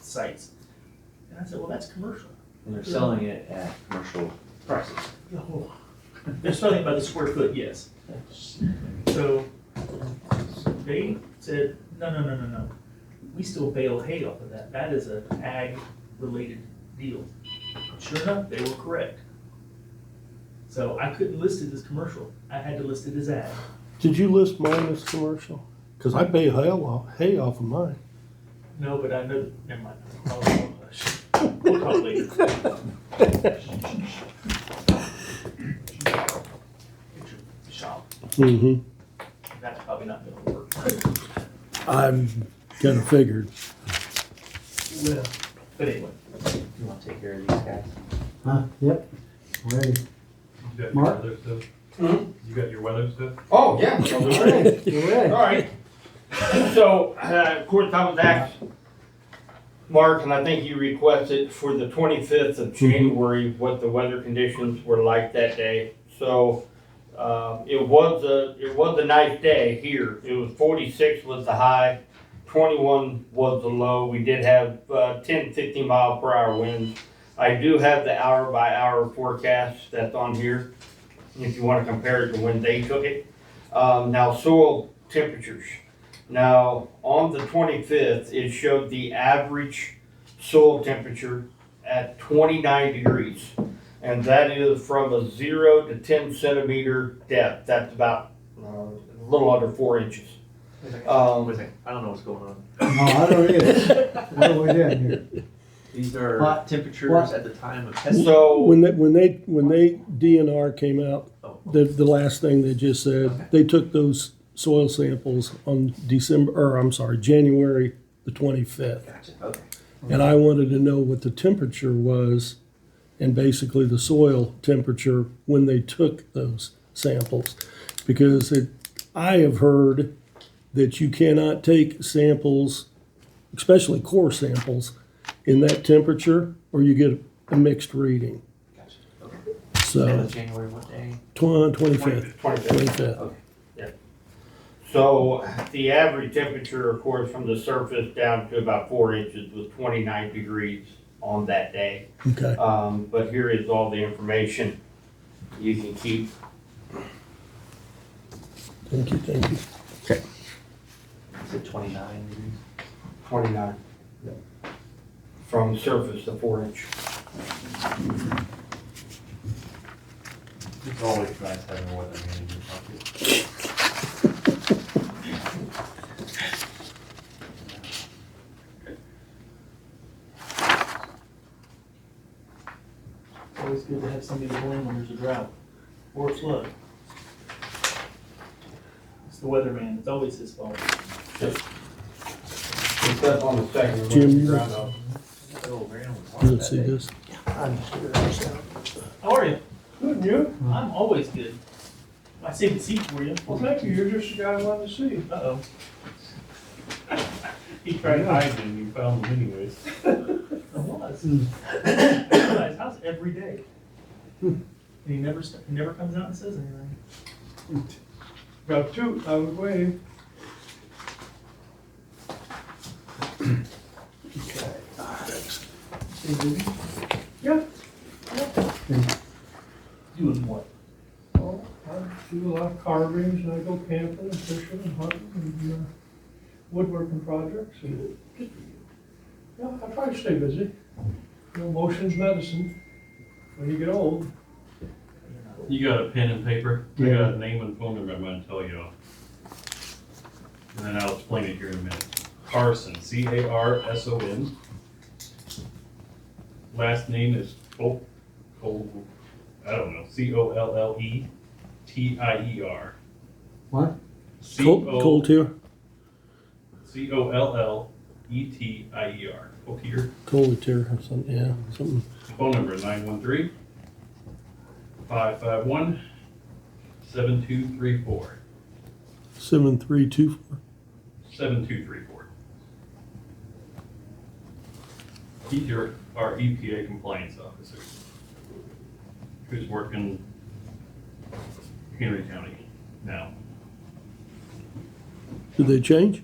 sites. And I said, well, that's commercial. And they're selling it at commercial prices. Yeah, hold on. They're selling it by the square foot, yes. So they said, no, no, no, no, no. We still bale hay off of that. That is an ag-related deal. Sure enough, they were correct. So I couldn't list it as commercial. I had to list it as ag. Did you list mine as commercial? Because I pay hay off, hay off of mine. No, but I know, never mind. I'll- I'll hush. We'll talk later. It's your shop. Mm-hmm. That's probably not gonna work. I'm kind of figured. Well. But anyway. You wanna take care of these guys? Huh, yep, ready. You got your Mark? weather stuff? Hmm? You got your weather stuff? Oh, yeah. You're ready, you're All ready. right. So, uh, of course, I was asked, Mark, and I think you requested for the 25th of January what the weather conditions were like that day. So, uh, it was a, it was a nice day here. It was 46 was the high, 21 was the low. We did have uh, 10, 15 mile per hour winds. I do have the hour by hour forecast that's on here, if you want to compare it to when they took it. Um, now soil temperatures. Now, on the twenty-fifth, it showed the average soil temperature at twenty-nine degrees. And that is from a zero to ten centimeter depth. That's about, uh, a little under four inches. Um, I don't know what's going on. No, Oh, I don't either. What are we doing here? These are What? temperatures What? at the time of testing. so, When they, when they, when they DNR came out, Oh. the, the last thing they just Okay. said, they took those soil samples on December, or I'm sorry, January the twenty-fifth. Gotcha, okay. And I wanted to know what the temperature was and basically the soil temperature when they took those samples. Because it, I have heard that you cannot take samples, especially core samples, in that temperature or you get a mixed reading. Gotcha, okay. And So, it's January what day? twen- twenty-fifth, twenty-fifth. twenty-fifth. So the average temperature, of course, from the surface down to about four inches was twenty-nine degrees on that day. Okay, Um, but here is all the information you can keep. thank you, thank you. Is it twenty-nine degrees? Twenty-nine. From surface to four inch. It's always nice having a weather man in your pocket. It's always good to have somebody to blame when there's a drought or a flood. It's the weatherman, it's always his fault. It's up on the second. one, Jim, you- round Oh, Graham was You on don't that see day. this? How are you? Good, you? I'm always good. I saved the seat for you. Well, thank you, you're just the guy I wanted to see. Uh-oh. He You tried tried to hide. hiding, you found them anyways. I was. I realized, how's every day? And he never, st- he never comes out and says anything. Got two, I was waiting. Stay busy. Yeah. Doing what? Oh, I do a lot of carvings, and I go camping, and fishing, and hunting, and uh, woodworking projects, and. Yeah, I try to stay busy. You know, motion's medicine when you get old. You got a pen and paper? I Yeah. got a name and phone number I'm gonna tell you all. And then I'll explain it here in a minute. Carson, C A R S O N. Last name is O, O, I don't know, C O L L E T I E R. What? C Cold, O, cold here? C O L L E T I E R. Cold here. Cold here, or something, yeah, something. Phone number nine one three five five one seven two three four, Seven, three, two, four. seven two three four. He's your, our EPA compliance officer, who's working Henry County now. Did they change?